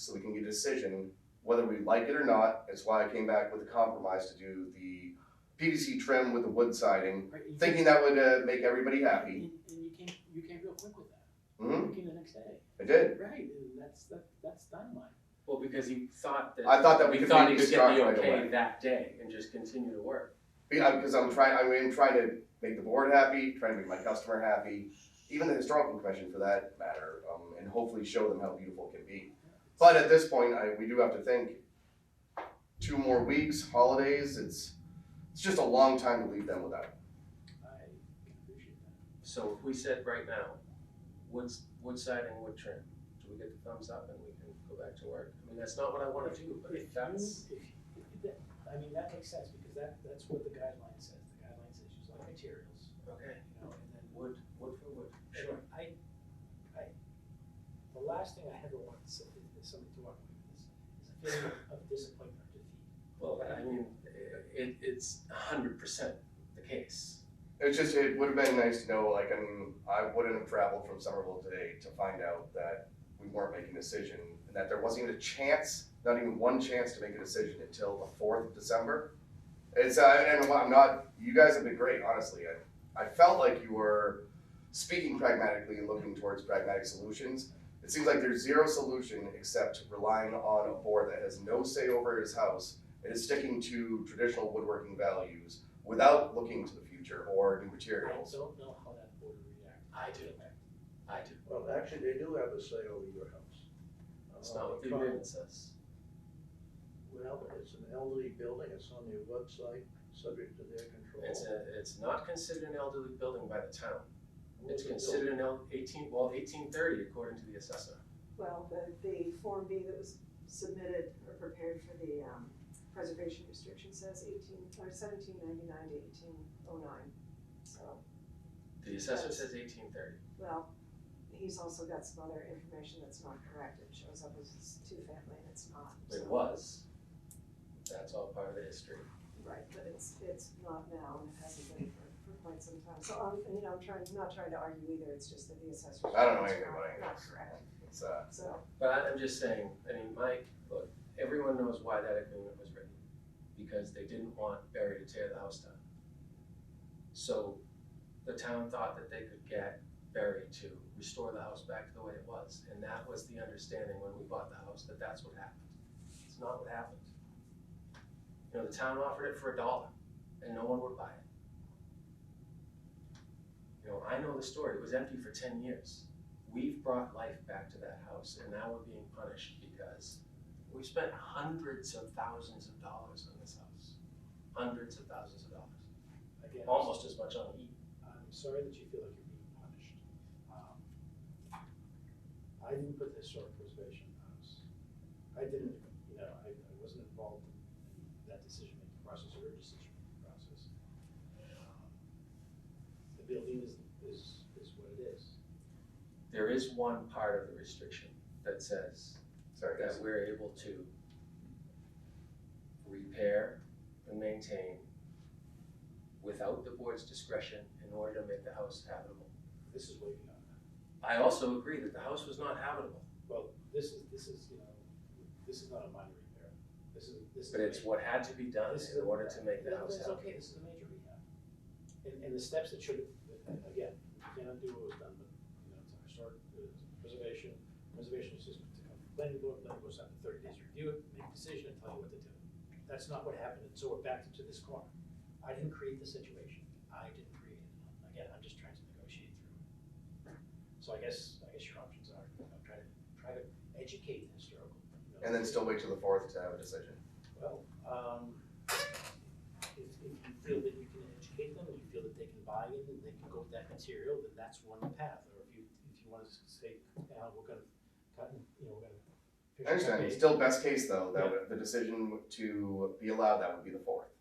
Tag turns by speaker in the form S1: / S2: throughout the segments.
S1: so we can get a decision whether we like it or not. That's why I came back with a compromise to do the PVC trim with the wood siding,
S2: Right, you
S1: thinking
S2: can't-
S1: that would uh, make everybody happy.
S2: And, and you came, you came real quick with that.
S1: Mhm.
S2: You came the next day.
S1: I did.
S2: Right, and that's, that, that's dynamite.
S3: Well, because he thought that.
S1: I thought that we
S3: he
S1: could
S3: thought he
S1: maybe
S3: could get the
S1: start right
S3: okay
S1: away.
S3: that day and just continue to work.
S1: Because I'm trying, I mean, I'm trying to make the board happy, trying to make my customer happy, even the historical commission for that matter, um, and hopefully show them how beautiful it can be. But at this point, I, we do have to think, two more weeks, holidays, it's, it's just a long time to leave them without.
S2: I can appreciate that.
S3: So if we said right now, wood, wood siding, wood trim, do we get the thumbs up and we can go back to work? I mean, that's not what I wanna do, but
S2: If you-
S3: if that's,
S2: if- if that- I mean, that makes sense because that, that's what the guideline says. The guideline says use light materials,
S3: okay,
S2: you know, and then
S3: wood, wood for wood, sure.
S2: And I, I, the last thing I ever want is is somebody to walk away with this, is a feeling of disappointment or defeat.
S3: Well, I mean, it, it's a hundred percent the case.
S1: It's just, it would have been nice to know, like, I mean, I wouldn't have traveled from Somerville today to find out that we weren't making a decision, and that there wasn't even a chance, not even one chance to make a decision until the fourth of December. It's, uh, and I'm not, you guys have been great, honestly, I, I felt like you were speaking pragmatically and looking towards pragmatic solutions. It seems like there's zero solution except relying on a board that has no say over his house, and is sticking to traditional woodworking values without looking to the future or new
S2: I
S1: materials.
S2: don't know how that board would react.
S3: I do, I do.
S4: Well, actually, they do have a say over your house.
S3: That's
S4: Uh,
S3: not what the
S4: because-
S3: agreement says.
S4: Well, it's an elderly building, it's on their website, subject to their control.
S3: It's a, it's not considered an elderly building by the town.
S4: Who
S3: It's
S4: was it built?
S3: considered an el- eighteen, well, eighteen thirty according to the assessor.
S5: Well, the, the Form B that was submitted or prepared for the, um, preservation restriction says eighteen, or seventeen ninety-nine to eighteen oh nine. So,
S3: The assessor says eighteen thirty.
S5: well, he's also got some other information that's not correct, it shows up as it's two-family and it's not,
S3: It
S5: so,
S3: was. That's all part of the history.
S5: right, but it's, it's not now and it hasn't been for, for quite some time. So, um, you know, I'm trying, not trying to argue either, it's just that the assessor's.
S1: I don't know
S5: office
S1: anything
S5: not-
S1: about any of
S5: Not
S1: this.
S5: correct,
S1: It's, uh,
S5: so,
S3: But I- I'm just saying, I mean, Mike, look, everyone knows why that agreement was written. Because they didn't want Barry to tear the house down. So the town thought that they could get Barry to restore the house back to the way it was. And that was the understanding when we bought the house, that that's what happened. It's not what happened. You know, the town offered it for a dollar and no one would buy it. You know, I know the story. It was empty for ten years we've brought life back to that house and now we're being punished because we spent hundreds of thousands of dollars on this house. Hundreds of thousands of dollars,
S2: Again,
S3: almost as much on E. heat.
S2: I'm Um, sorry that you feel like you're being punished. Um, I didn't put the historic preservation in the house. I didn't, you know, I, I wasn't involved in that decision-making process or your decision-making process. Um, The building is, is, is what it is.
S3: There is one part of the restriction that says
S1: sorry
S3: that
S1: guys.
S3: we're able to repair and maintain without the board's discretion in order to make the house habitable.
S2: This is way beyond that.
S3: I also agree that the house was not habitable,
S2: Well, this is, this is, you know, this is not a minor repair. This is, this is.
S3: but it's what had to be done
S2: This is
S3: in
S2: a-
S3: order to make the
S2: No,
S3: house
S2: It's
S3: habitable.
S2: okay, this is a major rehab. And, and the steps that should have, again, we cannot do what was done, but, you know, it's our historic uh, preservation, preservation is just to come from planning board, planning board's having thirty days to review it, make a decision, and tell you what to do. That's not what happened, and so we're back to this corner. I didn't create the situation, I didn't create it, again, I'm just trying to negotiate through it. So I guess, I guess your options are, you know, try to, try to educate the historical. you know,
S1: And then still wait till the fourth to have a decision.
S2: well, um, if, if you feel that you can educate them, you feel that they can buy in, and they can go with that material, then that's one path, or if you, if you wanna s- say, uh, we're gonna cut, and, you know, we're gonna. fish
S1: I understand,
S2: cut
S1: it's
S2: bait,"
S1: still best case though, that would- the decision to be allowed, that would be the fourth,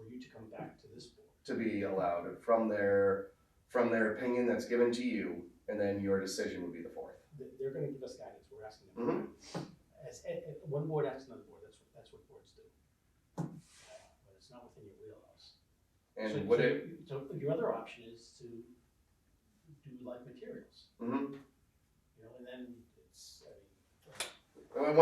S2: For you to come back to this board,
S1: to be allowed from their, from their opinion that's given to you, and then your decision would be the fourth.
S2: they, they're gonna give us guidance, we're asking them.
S1: Mm-hmm.
S2: As, eh, eh, one board asks another board, that's, what- that's what boards do. Uh, But it's not within your wheelhouse. So-
S1: And would
S2: so
S1: it,
S2: you- So your other option is to do like materials.
S1: mhm.
S2: You know, and then it's, I mean,
S1: And